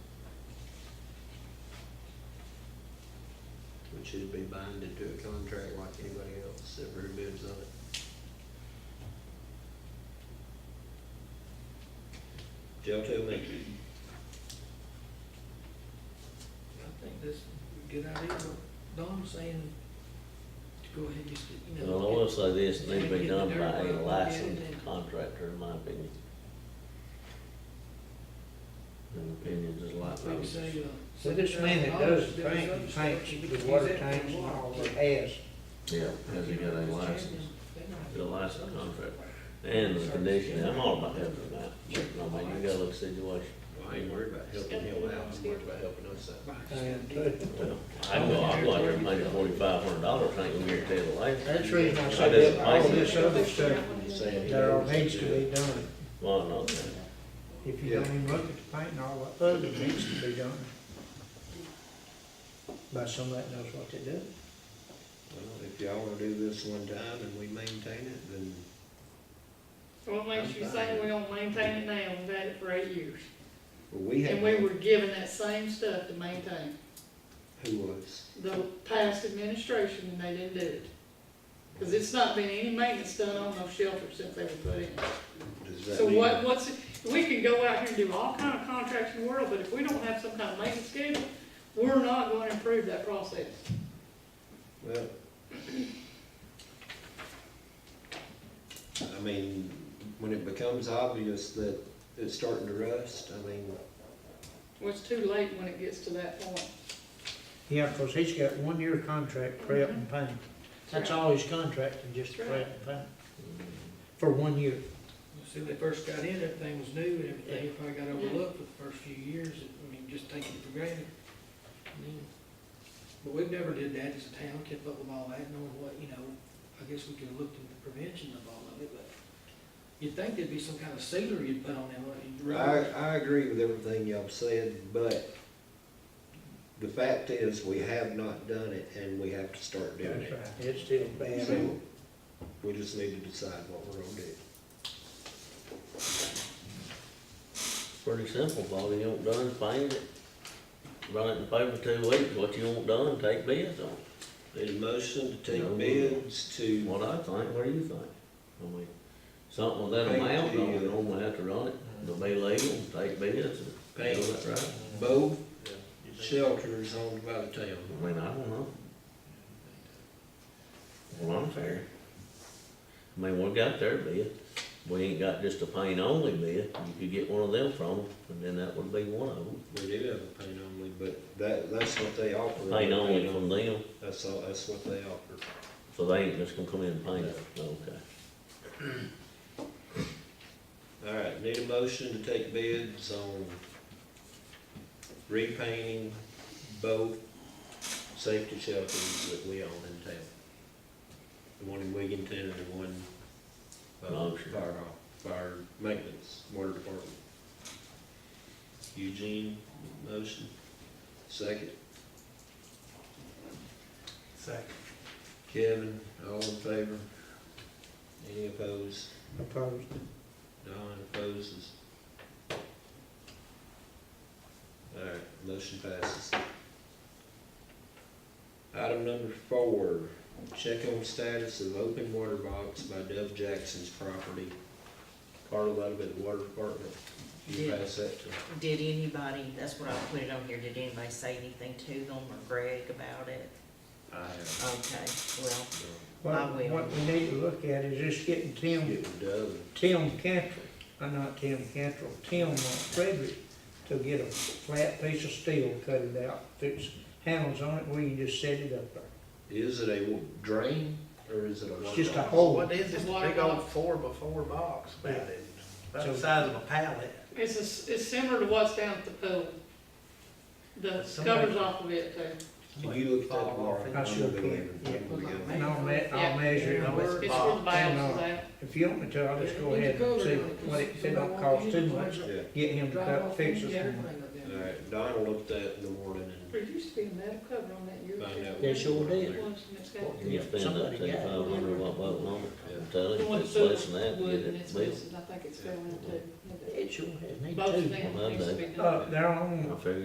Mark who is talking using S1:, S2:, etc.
S1: and should be binded to a contract like anybody else that rebids on it. Joe, tell me.
S2: I think that's a good idea, but Don's saying to go ahead and just, you
S3: And I
S2: know.
S3: will
S2: look at-
S3: say this, it needs to be done by
S2: Yeah,
S3: a
S2: yeah.
S3: licensed contractor, in my opinion. And opinions is like
S2: Like you
S3: those.
S2: say, uh.
S4: So this man that does the tank, he paints the water tanks and all that has,
S3: Yeah, has he got a license? Get a license contract. And the condition, I'm all about helping him out. I mean, you gotta look situation.
S1: Well, I ain't worried about helping him out, I'm worried about helping us out.
S4: and too.
S3: Well, I go, I'm like, they're making forty-five hundred dollars, I ain't gonna guarantee the license.
S4: That's the reason I
S3: I
S4: said
S3: just
S4: that all
S3: like
S4: this
S3: it.
S4: other stuff,
S1: He's saying he
S4: that all
S1: knows
S4: needs to
S1: do it.
S4: be done.
S3: Well, no, no.
S4: If you don't even look at the paint and all that other needs to be done. By somebody that knows what to do.
S1: Well, If y'all wanna do this one time and we maintain it, then
S5: What makes you say we don't maintain it now, we've had it for eight years,
S1: well, we have,
S5: and we were given that same stuff to maintain,
S1: who was?
S5: the past administration, and they didn't do it. Cause it's not been any maintenance done on those shelters since they were put in.
S1: Does that
S5: So
S1: mean-
S5: what, what's, we can go out here and do all kind of contracts in the world, but if we don't have some kind of maintenance schedule, we're not gonna improve that process.
S1: Well. I mean, when it becomes obvious that it's starting to rust, I mean,
S5: Well, it's too late when it gets to that point.
S4: Yeah, because he's got one year contract, prep and paint. That's all his contract, and just
S5: That's
S4: prep
S5: right.
S4: and paint, for one year.
S2: See, when they first got in, everything was new, and everything probably got overlooked for the first few years, I mean, just taking it for granted. I mean, But we've never did that as a town, kept up with all that, knowing what, you know, I guess we could have looked into prevention of all of it, but you'd think there'd be some kind of sealer you'd put on there, wouldn't you?
S1: I, I agree with everything y'all said, but the fact is, we have not done it, and we have to start doing
S4: That's
S1: it.
S4: right. It's still bad.
S1: So, we just need to decide what we're gonna do.
S3: Pretty simple, Bobby, you want done, paint it. Run it in paper two weeks, what you want done, take bids on it.
S1: Need a motion to
S3: No.
S1: take bids to,
S3: What I think, what do you think? I mean, something with that
S1: Paint
S3: amount,
S1: the-
S3: no, we don't have to run it, it'll be legal, take bids and.
S1: Paint.
S3: Do it right.
S1: both shelters owned by the town.
S3: I mean, I don't know. Well, I'm fair. I mean, we got their bid, we ain't got just a paint only bid, you could get one of them from them, and then that would be one of them.
S1: We do have a paint only, but that, that's what they offer.
S3: Paint only from them,
S1: That's all, that's what they offer.
S3: so they ain't just gonna come in and paint it, okay.
S1: All right, need a motion to take bids on repainting both safety shelters that we own in town. The one in Wigginton and the one, uh,
S3: Motion.
S1: fire, hall- fire maintenance, water department. Eugene, motion, second.
S4: Second.
S1: Kevin, all in favor? Any opposed?
S4: Opposed.
S1: Don opposes. Alright, motion passes. Item number four, check on status of open water box by Dove Jackson's property. Carla, that'll be the water department. You
S6: Yeah.
S1: pass that to.
S6: Did anybody, that's what I put it on here, did anybody say anything to them or Greg about it?
S1: I have.
S6: Okay, well,
S4: What,
S6: I will.
S4: what we need to look at is just getting Tim,
S1: Get with Dove.
S4: Tim Cantrell, uh, not Tim Cantrell, Tim uh, Frederick to get a flat piece of steel, cut it out, fix handles on it, where you just set it up there.
S1: Is it a drain or is it a?
S4: It's
S1: water
S4: just a
S1: box?
S4: hole.
S7: What is this
S5: Water
S7: big old
S5: box.
S7: four by four box about
S4: Yeah.
S7: it? About
S4: So-
S7: the size of a pallet.
S5: It's, a s- it's similar to what's down at the pool. The
S7: Somebody-
S5: covers off of it too.
S1: Can you look at that?
S7: Fall off
S1: Laura?
S7: it.
S4: I sure
S1: I'm gonna be
S4: can,
S1: leaving. I'm gonna go.
S4: And I'll me, I'll
S5: Yeah.
S4: measure it,
S7: You know,
S4: I'll-
S7: it's
S5: It's where the
S7: box.
S5: valves is at.
S4: if you want me to, I'll just go ahead and see what it, if it don't cost too much,
S1: Yeah,
S4: get him to cut, fix it. for me.
S1: alright, Don will look at that in the morning and
S5: There used to be a metal cover on that year.
S1: find out.
S4: They
S1: what-
S4: sure did.
S5: It was, and it's got-
S3: You spend that
S4: Somebody got it.
S3: thirty-five hundred watt bulb on it, I'm telling
S5: The
S3: you,
S5: one
S3: if it's
S5: that's
S3: less than that,
S5: wood
S3: get
S5: and
S3: it
S5: it's
S3: built.
S5: missing. I think it's fell in too.
S4: It sure has, need
S5: Both of
S4: to.
S5: them
S3: Well,
S5: needs to be done.
S4: Uh, they're on,
S3: I figure